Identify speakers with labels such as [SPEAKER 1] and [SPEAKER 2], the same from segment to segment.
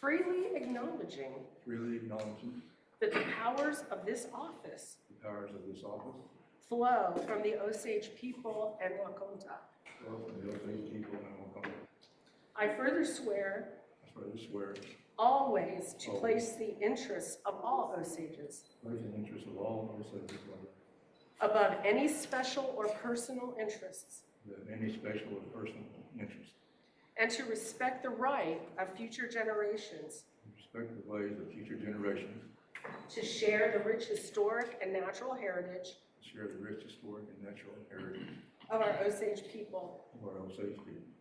[SPEAKER 1] freely acknowledging
[SPEAKER 2] freely acknowledging
[SPEAKER 1] that the powers of this office
[SPEAKER 2] the powers of this office,
[SPEAKER 1] flow from the Osage people and Wakonda.
[SPEAKER 2] or for the Osage people and Algonquin.
[SPEAKER 1] I further swear
[SPEAKER 2] I swear to swear,
[SPEAKER 1] always to place the interests of all Osages
[SPEAKER 2] with the interests of all Osages, above
[SPEAKER 1] above any special or personal interests,
[SPEAKER 2] any special or personal interest,
[SPEAKER 1] and to respect the right of future generations
[SPEAKER 2] and respect the ways of future generations,
[SPEAKER 1] to share the rich historic and natural heritage
[SPEAKER 2] and share the rich historic and natural heritage
[SPEAKER 1] of our Osage people.
[SPEAKER 2] of our Osage people.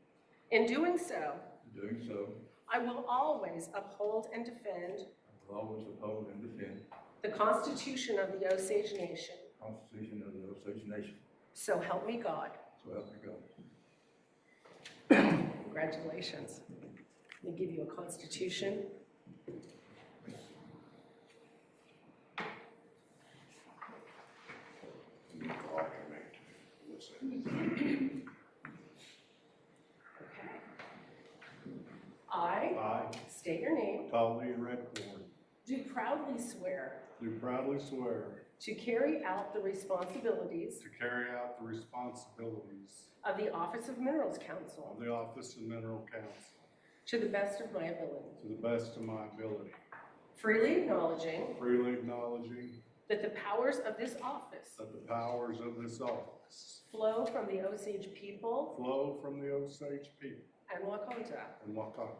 [SPEAKER 1] In doing so,
[SPEAKER 2] In doing so,
[SPEAKER 1] I will always uphold and defend
[SPEAKER 2] I will always uphold and defend
[SPEAKER 1] the Constitution of the Osage Nation.
[SPEAKER 2] the Constitution of the Osage Nation,
[SPEAKER 1] So help me God.
[SPEAKER 2] so help me God.
[SPEAKER 1] Congratulations. Let me give you a constitution. Okay. I
[SPEAKER 3] I,
[SPEAKER 1] state your name,
[SPEAKER 3] Tolly Redcorn,
[SPEAKER 1] do proudly swear
[SPEAKER 3] do proudly swear
[SPEAKER 1] to carry out the responsibilities
[SPEAKER 3] to carry out the responsibilities
[SPEAKER 1] of the Office of Minerals
[SPEAKER 3] of
[SPEAKER 1] Council
[SPEAKER 3] the Office of Mineral Council
[SPEAKER 1] to the best of my ability,
[SPEAKER 3] to the best of my ability,
[SPEAKER 1] freely acknowledging
[SPEAKER 3] freely acknowledging
[SPEAKER 1] that the powers of this office
[SPEAKER 3] that the powers of this office
[SPEAKER 1] flow from the Osage people
[SPEAKER 3] flow from the Osage people
[SPEAKER 1] and Wakonda.
[SPEAKER 3] and Waukesha.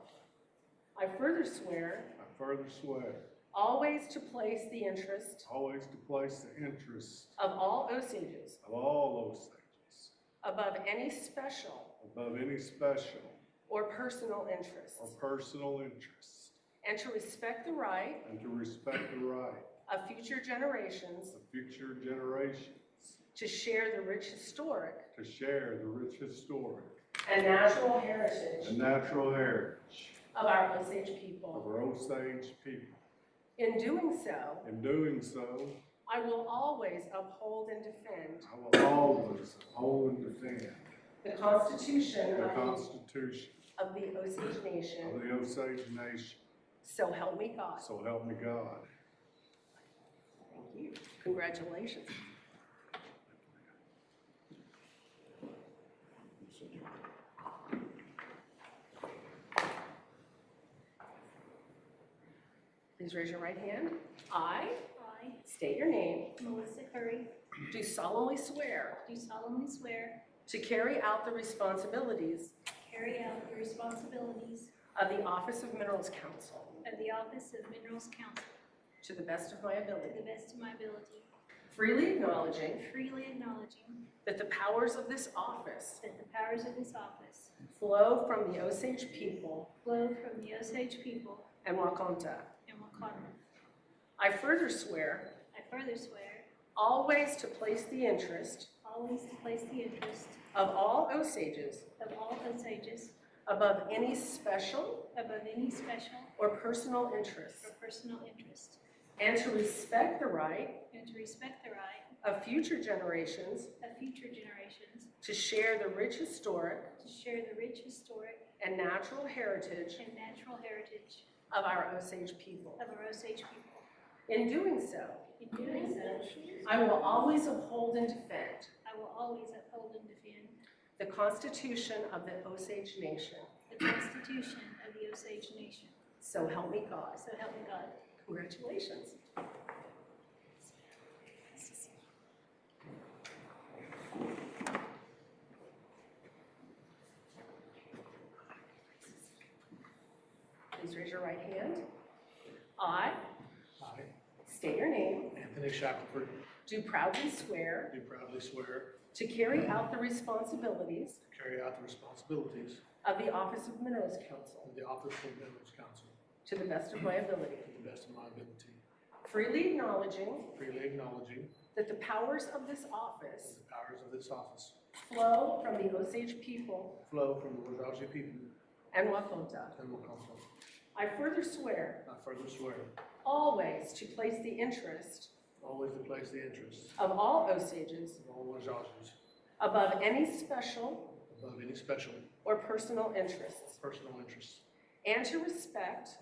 [SPEAKER 1] I further swear
[SPEAKER 3] I further swear
[SPEAKER 1] always to place the interest
[SPEAKER 3] always to place the interests
[SPEAKER 1] of all Osages
[SPEAKER 3] of all Osages
[SPEAKER 1] above any special
[SPEAKER 3] above any special
[SPEAKER 1] or personal
[SPEAKER 3] or
[SPEAKER 1] interests,
[SPEAKER 3] personal interests,
[SPEAKER 1] and to respect the right
[SPEAKER 3] and to respect the right
[SPEAKER 1] of future generations
[SPEAKER 3] of future generations
[SPEAKER 1] to share the rich historic
[SPEAKER 3] to share the rich historic
[SPEAKER 1] and natural
[SPEAKER 3] and
[SPEAKER 1] heritage
[SPEAKER 3] natural heritage
[SPEAKER 1] of our Osage
[SPEAKER 3] of
[SPEAKER 1] people.
[SPEAKER 3] our Osage people.
[SPEAKER 1] In doing so,
[SPEAKER 3] In doing so,
[SPEAKER 1] I will always uphold and defend
[SPEAKER 3] I will always uphold and defend
[SPEAKER 1] the Constitution
[SPEAKER 3] the
[SPEAKER 1] of
[SPEAKER 3] Constitution
[SPEAKER 1] of the Osage
[SPEAKER 3] of
[SPEAKER 1] Nation,
[SPEAKER 3] the Osage Nation.
[SPEAKER 1] so help me God.
[SPEAKER 3] So help me God.
[SPEAKER 1] Thank you. Congratulations. Please raise your right hand. I
[SPEAKER 4] I,
[SPEAKER 1] state your name.
[SPEAKER 4] Melissa Curry,
[SPEAKER 1] Do solemnly swear
[SPEAKER 4] do solemnly swear
[SPEAKER 1] to carry out the responsibilities
[SPEAKER 4] to carry out the responsibilities
[SPEAKER 1] of the Office of Minerals Council
[SPEAKER 4] of the Office of Minerals Council
[SPEAKER 1] to the best of my
[SPEAKER 4] to the
[SPEAKER 1] ability,
[SPEAKER 4] best of my ability,
[SPEAKER 1] freely acknowledging
[SPEAKER 4] freely acknowledging
[SPEAKER 1] that the powers of this office
[SPEAKER 4] that the powers of this office
[SPEAKER 1] flow from the Osage people
[SPEAKER 4] flow from the Osage people
[SPEAKER 1] and Wakonda.
[SPEAKER 4] and Wakanda.
[SPEAKER 1] I further swear
[SPEAKER 4] I further swear
[SPEAKER 1] always to place the interest
[SPEAKER 4] always to place the interest
[SPEAKER 1] of all Osages
[SPEAKER 4] of all Osages
[SPEAKER 1] above any special
[SPEAKER 4] above any special
[SPEAKER 1] or personal interests,
[SPEAKER 4] or personal interest,
[SPEAKER 1] and to respect the right
[SPEAKER 4] and to respect the right
[SPEAKER 1] of future generations
[SPEAKER 4] of future generations
[SPEAKER 1] to share the rich historic
[SPEAKER 4] to share the rich historic
[SPEAKER 1] and natural heritage
[SPEAKER 4] and natural heritage
[SPEAKER 1] of our Osage people.
[SPEAKER 4] of our Osage people.
[SPEAKER 1] In doing so,
[SPEAKER 4] In doing so,
[SPEAKER 1] I will always uphold and defend
[SPEAKER 4] I will always uphold and defend
[SPEAKER 1] the Constitution of the Osage Nation.
[SPEAKER 4] the Constitution of the Osage Nation.
[SPEAKER 1] So help me God.
[SPEAKER 4] So help me God.
[SPEAKER 1] Congratulations. Please raise your right hand. I
[SPEAKER 5] I,
[SPEAKER 1] state your name.
[SPEAKER 5] Anthony Shackelford,
[SPEAKER 1] Do proudly swear
[SPEAKER 5] do proudly swear
[SPEAKER 1] to carry out the responsibilities
[SPEAKER 5] to carry out the responsibilities
[SPEAKER 1] of the Office of Minerals Council
[SPEAKER 5] of the Office of Minerals Council
[SPEAKER 1] to the best of my ability,
[SPEAKER 5] to the best of my ability,
[SPEAKER 1] freely acknowledging
[SPEAKER 5] freely acknowledging
[SPEAKER 1] that the powers of this office
[SPEAKER 5] the powers of this office
[SPEAKER 1] flow from the Osage people
[SPEAKER 5] flow from the Wajaji people
[SPEAKER 1] and Wakonda.
[SPEAKER 5] and Wakansa.
[SPEAKER 1] I further swear
[SPEAKER 5] I further swear
[SPEAKER 1] always to place the interest
[SPEAKER 5] always to place the interests
[SPEAKER 1] of all Osages
[SPEAKER 5] of all Wajajis
[SPEAKER 1] above any special
[SPEAKER 5] above any special
[SPEAKER 1] or personal interests,
[SPEAKER 5] personal interests
[SPEAKER 1] and to respect